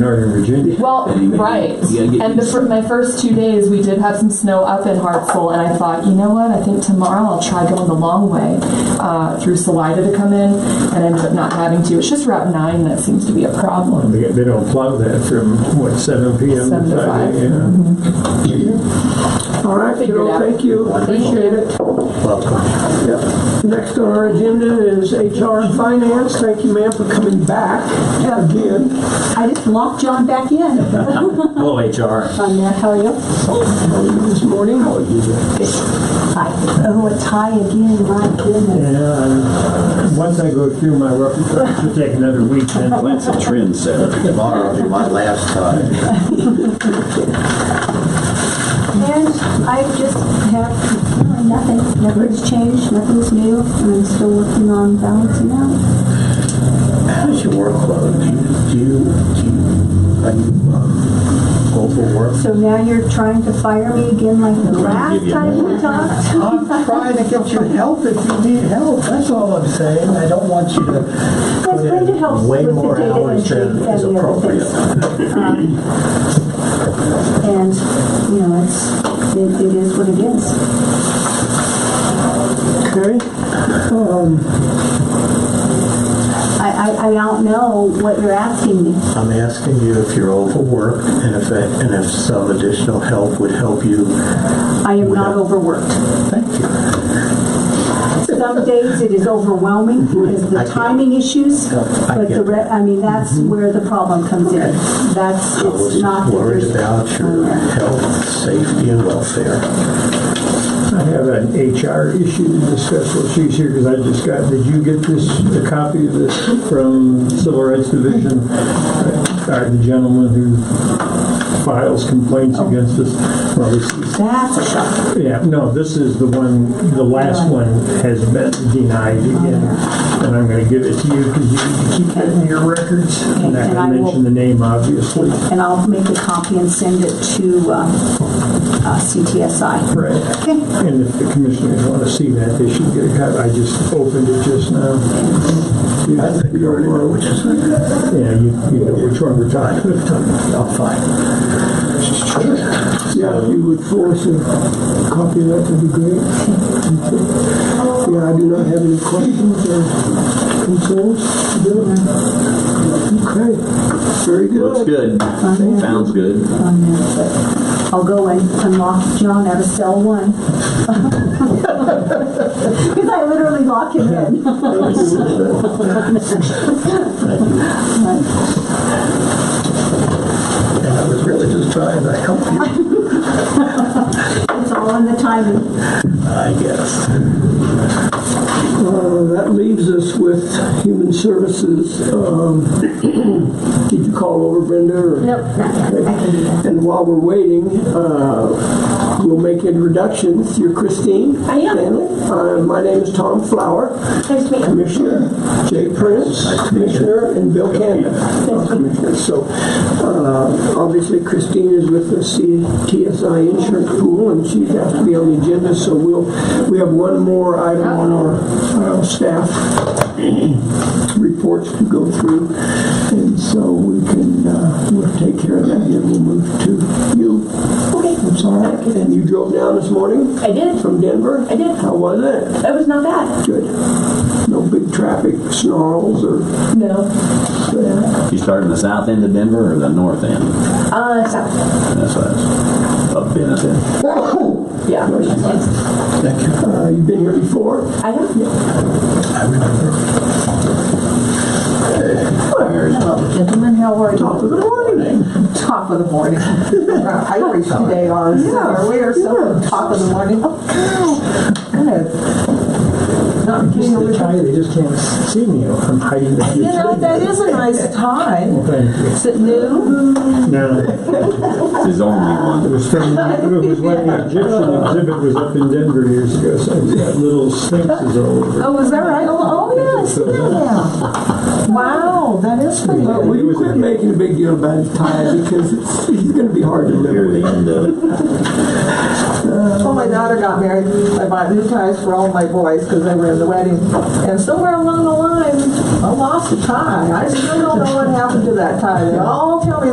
Northern Virginia. Well, that he made. right. You gotta get And the, used for my first two days, we did have some snow up in Hartsville, and I thought, you know what? I think tomorrow I'll try going the long way uh, through Salida to come in, and I ended up not having to. It's just Route 9 that seems to be a problem. They, they don't plug that from, what, seven PM Seven to to five five. Mm-hmm. AM? All right, Figure it Carol, out. thank you, appreciate it. Yep. Next on our agenda is HR and Finance, thank you ma'am for coming back again. I just locked John back in on Hello, HR. that. How are you? How are you this morning? Hi. Oh, a tie again, my goodness. Yeah, Uh, once I go through my rough, it'll take another week then. Glenn's a trendsetter. Tomorrow will be my last time. And I just have uh, nothing, nothing's changed, nothing's new, and I'm still working on balancing out. How's your uh, workload? Do you, do you, are you, um, go for work? So now you're trying to fire me again like the give last you time we talked? I'm trying to get you help if you need help, that's all I'm saying. I don't want you to Because Brenda helps way with the more data hours entry and than is the other appropriate. things. Um, And, you know, it's, it it is what it is. Okay, I, I, I don't know what you're asking me. I'm asking you if you're overworked and if, and if some additional help would help you. I am not overworked. Thank you. Some days it is overwhelming because of I the get it. timing issues, I but the, get Mm-hmm. re- I mean, that's where the problem comes in. That's, I was it's not. that worried there's- about your health, safety, and welfare. I have an HR issue to discuss while she's here, because I just got, did you get this, a copy of this from Civil Rights Division? Or the gentleman who files complaints Oh. against us? Well, this is That's a shock. Yeah, no, this is the one, the last one has been denied again, and I'm gonna give it to you because you keep it in your records. I'm not And I gonna will- mention the name, obviously. And I'll make a copy and send it to, um, uh, CTSI. Right. Okay. And if the commissioners want to see that, they should get a copy. I just opened it just now. I think you already know which is it. Yeah, you, you know which one we're talking about. I'm fine. yeah, if you would force a copy of that, that'd be great. Yeah, I do not have any questions or concerns. Okay, very Looks good. good. Sounds good. on there, but I'll go and unlock John out of cell one. Because I literally lock him in. And I was really just trying to help you, It's all in the timing. I guess. Uh, That leaves us with Human Services. Um, Did you call over Brenda or? Nope, not yet. I can do that. And while we're waiting, uh, we'll make introductions. You're Christine? I am. Stanley. Uh, My name is Tom Flower. Nice to meet you. Commissioner Jay Prince, Commissioner, and Bill Cannon. So, uh, obviously Christine is with the CTSI Insurance Pool, and she has to be on the agenda, so we'll, we have one more item on our uh, staff reports to go through, and so we can, uh, we'll take care of that, and we'll move to you. Okay. That's all right. And you drove down this morning I did. from Denver? I did. How was it? That was not bad. Good. No big traffic snarls or, No. You starting the south end of Denver or the north end? Uh, so, That's what I was up in. I said. yeah. Yes. Thank you. uh, you've been here before? I have. I remember. Hello, gentlemen, how are Top of the you? morning. Top of the morning. Our Irish today are, summer. we are so top of the morning. Oh, Good. Not Just getting over the time. tie, they just can't see me. I'm hiding You behind know, that is a nice tie. the thing. Is it new? No, It's his only it one. was from, it was when the Egyptian exhibit was up in Denver years ago, so I've got little sphinxes all over. Oh, is that right? Oh, oh, yeah, I see that now. Wow, that is pretty. Well, will you quit making a big deal about his tie because it's, it's gonna be hard to live Near the end of it. Well, my daughter got married. I bought new ties for all my boys because they were in the wedding. And somewhere along the line, I lost a tie. I still don't know what happened to that tie. They all tell me